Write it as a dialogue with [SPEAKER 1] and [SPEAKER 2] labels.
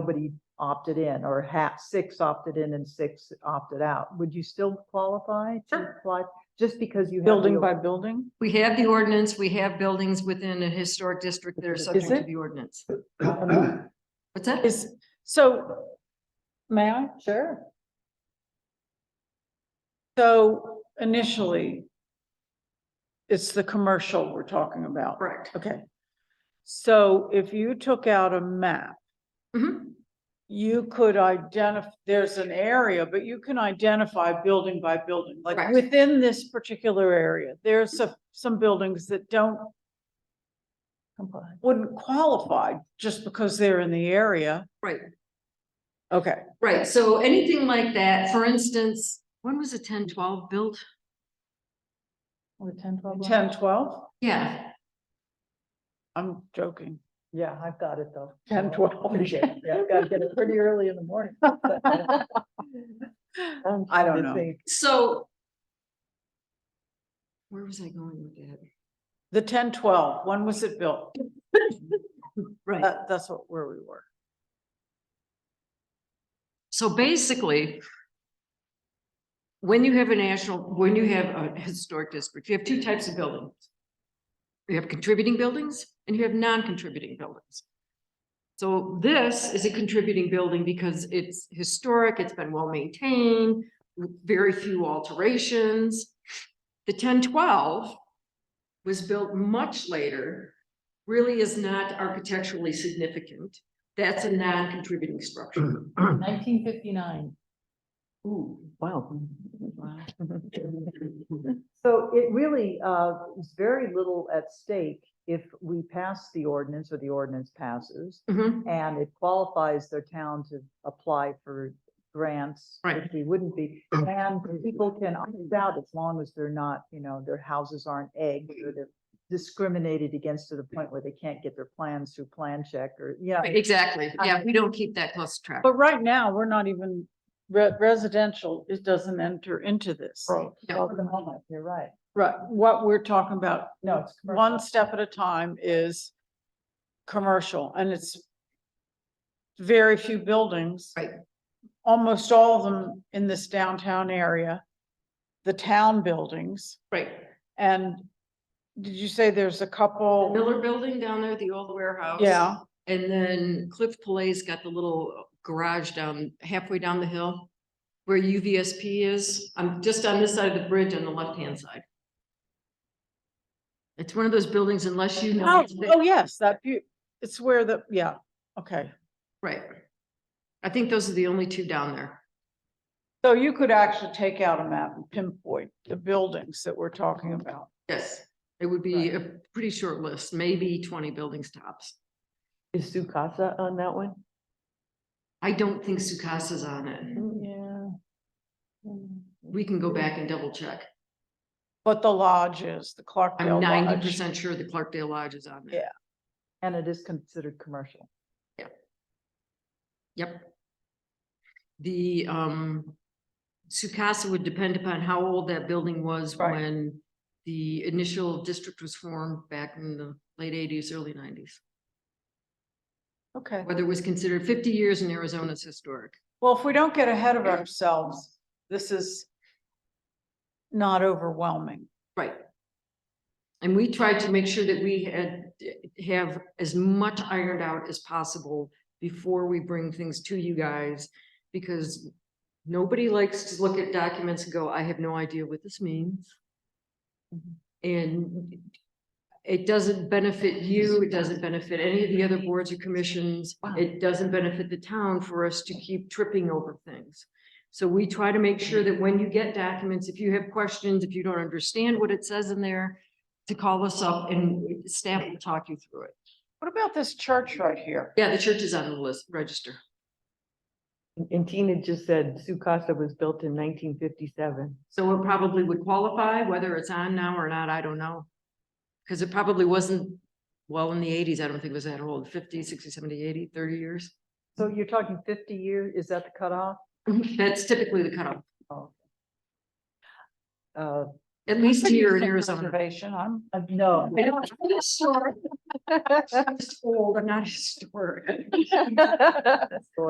[SPEAKER 1] nobody opted in or half, six opted in and six opted out, would you still qualify to
[SPEAKER 2] Sure.
[SPEAKER 1] apply? Just because you. have
[SPEAKER 3] Building
[SPEAKER 1] the-
[SPEAKER 3] by building?
[SPEAKER 2] We have the ordinance, we have buildings within a historic district that are subject to
[SPEAKER 3] it?
[SPEAKER 2] the ordinance. What's that?
[SPEAKER 3] Is, so, may I?
[SPEAKER 1] Sure.
[SPEAKER 3] So initially, it's the commercial we're talking about.
[SPEAKER 2] Correct.
[SPEAKER 3] Okay. So if you took out a map,
[SPEAKER 2] Mhm.
[SPEAKER 3] you could identify, there's an area, but you can identify building by building. Like
[SPEAKER 2] Correct.
[SPEAKER 3] within this particular area, there's some, some buildings that don't, wouldn't qualify just because they're in the area.
[SPEAKER 2] Right,
[SPEAKER 3] Okay,
[SPEAKER 2] right. So anything like that, for instance, when was a ten twelve built?
[SPEAKER 1] Or ten, twelve.
[SPEAKER 3] ten, twelve?
[SPEAKER 2] Yeah,
[SPEAKER 3] I'm joking.
[SPEAKER 1] Yeah, I've got it though.
[SPEAKER 3] 10, 12.
[SPEAKER 1] Yeah, I've got to get it pretty early in the morning. I'm
[SPEAKER 3] I don't
[SPEAKER 1] trying to
[SPEAKER 3] know.
[SPEAKER 1] think.
[SPEAKER 2] so. Where was I going with that?
[SPEAKER 3] The ten, twelve, when was it built?
[SPEAKER 2] Right,
[SPEAKER 3] That, that's what, where we were.
[SPEAKER 2] so basically. When you have a national, when you have a historic district, you have two types of buildings. You have contributing buildings and you have non-contributing buildings. So this is a contributing building because it's historic, it's been well-maintained, with very few alterations. The ten twelve was built much later, really is not architecturally significant. That's a non-contributing structure.
[SPEAKER 1] Nineteen fifty-nine.
[SPEAKER 2] Ooh, wow.
[SPEAKER 1] So it really, uh, is very little at stake if we pass the ordinance or the ordinance passes.
[SPEAKER 3] Mm-hmm.
[SPEAKER 2] Mhm,
[SPEAKER 1] And it qualifies their town to apply for grants,
[SPEAKER 2] Right.
[SPEAKER 1] which we wouldn't be.
[SPEAKER 4] Oh.
[SPEAKER 1] And people can opt out as long as they're not, you know, their houses aren't egged or they're discriminated against to the point where they can't get their plans through plan check or, you know.
[SPEAKER 2] Exactly,
[SPEAKER 3] Uh,
[SPEAKER 2] yeah, we don't keep that close track.
[SPEAKER 3] But right now, we're not even, re- residential, it doesn't enter into this.
[SPEAKER 2] Yeah.
[SPEAKER 1] Well, for the moment, You're right.
[SPEAKER 3] Right, what we're talking about,
[SPEAKER 1] No, it's. commercial.
[SPEAKER 3] one step at a time is commercial, and it's very few buildings.
[SPEAKER 2] Right.
[SPEAKER 3] Almost all of them in this downtown area, the town buildings,
[SPEAKER 2] Right,
[SPEAKER 3] and did you say there's a couple?
[SPEAKER 2] Miller Building down there, the old warehouse.
[SPEAKER 3] Yeah,
[SPEAKER 2] And then Cliff Palais got the little garage down halfway down the hill where UVSP is. I'm just on this side of the bridge on the left-hand side. It's one of those buildings unless you know.
[SPEAKER 3] oh,
[SPEAKER 2] it's
[SPEAKER 3] oh,
[SPEAKER 2] big-
[SPEAKER 3] yes, that, bu- it's where the, yeah, okay.
[SPEAKER 2] Right. I think those are the only two down there.
[SPEAKER 3] So you could actually take out a map and pinpoint the buildings that we're talking about.
[SPEAKER 2] Yes, it would be a pretty short list, maybe twenty buildings tops.
[SPEAKER 4] Is Sukasa on that one?
[SPEAKER 2] I don't think Sucasa's on it.
[SPEAKER 3] Yeah.
[SPEAKER 2] We can go back and double check.
[SPEAKER 3] But the lodges, the
[SPEAKER 2] I'm
[SPEAKER 3] Clarkdale
[SPEAKER 2] ninety
[SPEAKER 3] Lodge.
[SPEAKER 2] percent sure the Clarkdale Lodge is on there.
[SPEAKER 1] And it is considered commercial.
[SPEAKER 2] Yep. The, um, Sukasa would depend upon how old that building was
[SPEAKER 3] Right.
[SPEAKER 2] when the initial district was formed back in the late eighties, early nineties.
[SPEAKER 3] Okay,
[SPEAKER 2] Whether it was considered fifty years in Arizona's historic.
[SPEAKER 3] well, if we don't get ahead of ourselves, this is not overwhelming.
[SPEAKER 2] Right. And we tried to make sure that we had, have as much ironed out as possible before we bring things to you guys. Because nobody likes to look at documents and go, I have no idea what this means. And it doesn't benefit you, it doesn't benefit any of the other boards or commissions. It doesn't benefit the town for us to keep tripping over things. So we try to make sure that when you get documents, if you have questions, if you don't understand what it says in there, to call us up and staff will talk you through it.
[SPEAKER 3] What about this church right here?
[SPEAKER 2] Yeah, the church is on the list, register.
[SPEAKER 4] And Tina just said Sukasa was built in nineteen fifty-seven.
[SPEAKER 2] So it probably would qualify, whether it's on now or not, I don't know. Because it probably wasn't, well, in the eighties, I don't think it was that old, 50, 60, 70, 80, 30 years.
[SPEAKER 1] So you're talking fifty years. is that the cutoff?
[SPEAKER 2] That's typically the cutoff.
[SPEAKER 1] Uh,
[SPEAKER 2] at least here in Arizona.
[SPEAKER 3] Conservation, I'm.
[SPEAKER 1] Uh, No,
[SPEAKER 2] I don't, I'm historic. I'm just old, I'm not historic.
[SPEAKER 1] or